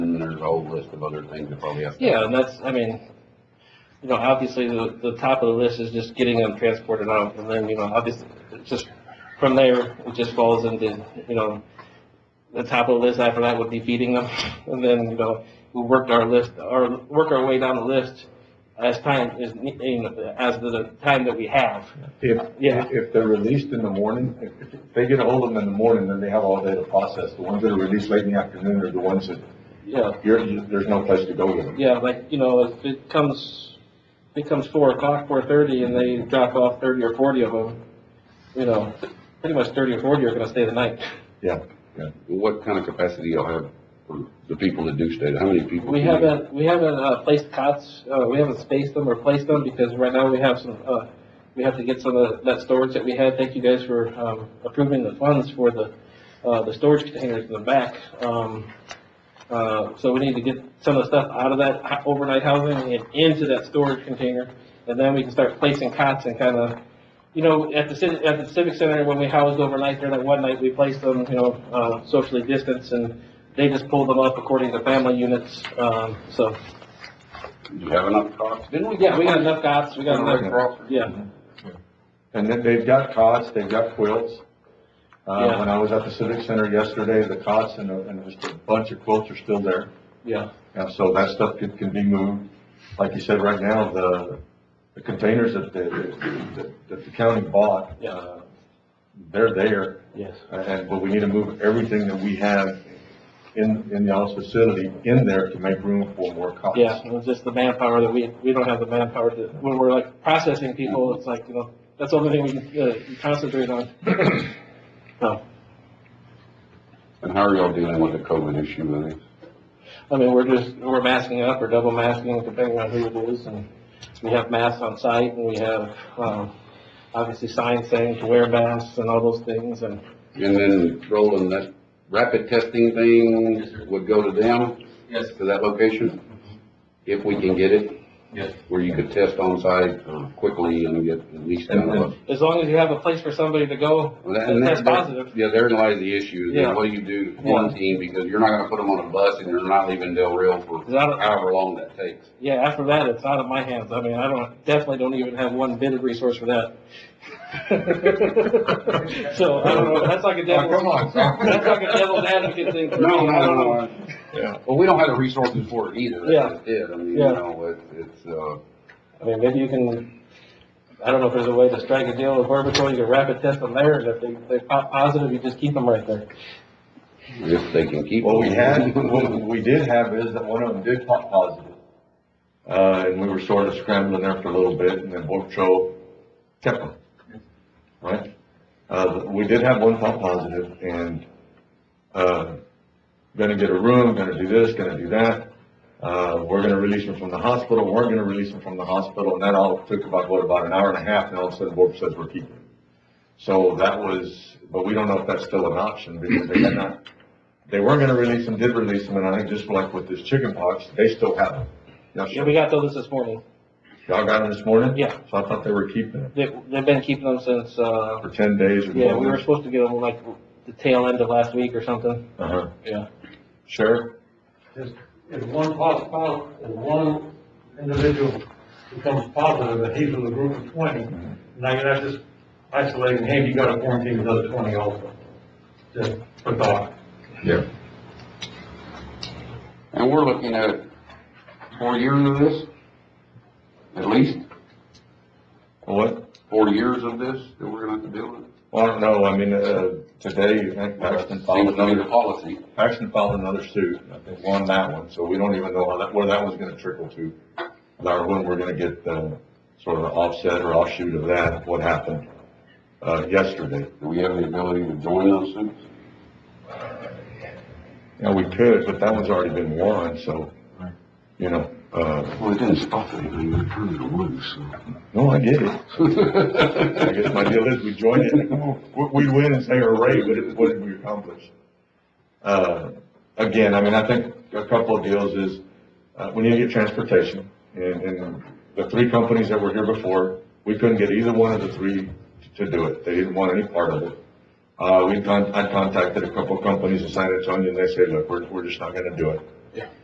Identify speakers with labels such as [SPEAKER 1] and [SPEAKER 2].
[SPEAKER 1] there's a whole list of other things that probably have. to-
[SPEAKER 2] Yeah, and that's, I mean, you know, obviously, the, the top of the list is just getting them transported out, and then, you know, obviously, it's just, from there, it just falls into, you know, the top of the list after that would be feeding them, and then, you know, we worked our list, or work our way down the list as time, is, you know, as the time that we have.
[SPEAKER 3] If,
[SPEAKER 2] Yeah.
[SPEAKER 3] if they're released in the morning, if if they get a hold of them in the morning, then they have all day to process. The ones that are released late in the afternoon are the ones that
[SPEAKER 2] Yeah,
[SPEAKER 3] you're, you- there's no place to go with them.
[SPEAKER 2] yeah, like, you know, if it comes, if it comes four o'clock, four thirty, and they drop off thirty or forty of them, you know, pretty much thirty or forty are gonna stay the night.
[SPEAKER 3] Yeah, yeah.
[SPEAKER 1] What kind of capacity y'all have for the people that do stay? How many people?
[SPEAKER 2] We
[SPEAKER 1] do you-
[SPEAKER 2] haven't, we haven't, uh, placed cots, uh, we haven't spaced them or placed them, because right now we have some, uh, we have to get some of that storage that we had, thank you guys for, um, approving the funds for the, uh, the storage containers in the back, um, uh, so we need to get some of the stuff out of that ho- overnight housing and into that storage container, and then we can start placing cots and kind of, you know, at the civic, at the civic center, when we housed overnight there that one night, we placed them, you know, uh, socially distanced, and they just pulled them up according to family units, um, so,
[SPEAKER 1] Do you have enough cots? Didn't we?
[SPEAKER 2] yeah, we got enough cots, we got enough, yeah,
[SPEAKER 3] And then they've got cots, they've got quilts. Uh,
[SPEAKER 2] Yeah.
[SPEAKER 3] when I was at the Civic Center yesterday, the cots and, the- and just a bunch of quilts are still there.
[SPEAKER 2] yeah,
[SPEAKER 3] And so that stuff can, can be moved. Like you said, right now, the, the containers that the, that- that the county bought,
[SPEAKER 2] Yeah.
[SPEAKER 3] uh, they're there.
[SPEAKER 2] yes,
[SPEAKER 3] And, but we need to move everything that we have in, in the office facility in there to make room for more cots.
[SPEAKER 2] yeah, it was just the manpower that we, we don't have the manpower to, when we're like processing people, it's like, you know, that's the only thing we can, uh, concentrate on. So,
[SPEAKER 1] And how are y'all dealing with the COVID issue with it?
[SPEAKER 2] I mean, we're just, we're masking up or double masking depending on who it is, and we have masks on site, and we have, um, obviously signs saying to wear masks and all those things, and
[SPEAKER 1] And then Roland, that rapid testing thing would go to them?
[SPEAKER 2] Yes.
[SPEAKER 1] To that location? If we can get it? Yes. Where you could test on site uh, quickly and get at least down to
[SPEAKER 3] And-
[SPEAKER 1] a.
[SPEAKER 2] as long as you have a place for somebody to go,
[SPEAKER 1] And
[SPEAKER 2] and
[SPEAKER 1] that-
[SPEAKER 2] test positive.
[SPEAKER 1] Yeah, therein lies the issue,
[SPEAKER 2] Yeah.
[SPEAKER 1] then what do you do quarantine, because you're not gonna put them on a bus and they're not leaving Del Rio for
[SPEAKER 2] Is that a-
[SPEAKER 1] however long that takes.
[SPEAKER 2] Yeah, after that, it's out of my hands. I mean, I don't, definitely don't even have one bit of resource for that. So, I don't know, that's like a
[SPEAKER 3] Oh, come
[SPEAKER 2] devil,
[SPEAKER 3] on, Tom.
[SPEAKER 2] that's like a devil's advocate thing for me.
[SPEAKER 1] No, no,
[SPEAKER 2] I
[SPEAKER 1] no,
[SPEAKER 2] don't know.
[SPEAKER 1] no.
[SPEAKER 3] Yeah.
[SPEAKER 1] Well, we don't have the resources for it either,
[SPEAKER 2] Yeah.
[SPEAKER 1] that's just it, I mean, you
[SPEAKER 2] Yeah.
[SPEAKER 1] know, it's, it's, uh,
[SPEAKER 2] I mean, maybe you can, I don't know if there's a way to strike a deal with Border Patrol, you can rapid test them there, and if they, they pop positive, you just keep them right there.
[SPEAKER 1] if they can keep.
[SPEAKER 3] What we
[SPEAKER 1] them.
[SPEAKER 3] had, what we did have is that one of them did pop positive. Uh, and we were sort of scrambling there for a little bit and then Border Patrol kept them. Right? Uh, we did have one pop positive and, uh, gonna get a room, gonna do this, gonna do that. Uh, we're gonna release them from the hospital, we're gonna release them from the hospital, and that all took about, what, about an hour and a half, and all of a sudden, Borb says we're keeping them. So that was, but we don't know if that's still an option, because they had not, they were gonna release them, did release them, and I think just like with this chicken pox, they still have them. Now,
[SPEAKER 2] Yeah, we got told this this morning.
[SPEAKER 3] y'all got them this morning?
[SPEAKER 2] Yeah.
[SPEAKER 3] So I thought they were keeping them
[SPEAKER 2] They, they've been keeping them since, uh,
[SPEAKER 3] for ten days or
[SPEAKER 2] yeah, we were
[SPEAKER 3] more.
[SPEAKER 2] supposed to get them like the tail end of last week or something.
[SPEAKER 3] Uh-huh.
[SPEAKER 2] Yeah.
[SPEAKER 3] Sheriff?
[SPEAKER 4] If, if one pos- pos- if one individual becomes positive, and he's in the group of twenty, now you're not just isolating, hey, you gotta quarantine the other twenty also. Just for thought.
[SPEAKER 3] Yeah.
[SPEAKER 1] And we're looking at four years of this, at least,
[SPEAKER 3] What?
[SPEAKER 1] four years of this that we're gonna have to deal with.
[SPEAKER 3] Well, I don't know, I mean, uh, today, I think Paxton filed
[SPEAKER 1] Seems to be
[SPEAKER 3] another
[SPEAKER 1] the policy.
[SPEAKER 3] Paxton filed another suit, I think won that one, so we don't even know how that, where that one's gonna trickle to. Or when we're gonna get, uh, sort of an offset or offshoot of that, what happened, uh, yesterday.
[SPEAKER 1] Do we have the ability to join those suits?
[SPEAKER 3] Now, we could, but that one's already been won, so, you know, uh,
[SPEAKER 1] Well, it didn't stop anything, it turned it loose,
[SPEAKER 3] no, I get it. I guess my deal is we join it, we, we win and say hooray, but it, what did we accomplish? Uh, again, I mean, I think a couple of deals is, uh, we need to get transportation. And, and the three companies that were here before, we couldn't get either one of the three to do it. They didn't want any part of it. Uh, we con, I contacted a couple of companies in San Antonio and they said, look, we're, we're just not gonna do it.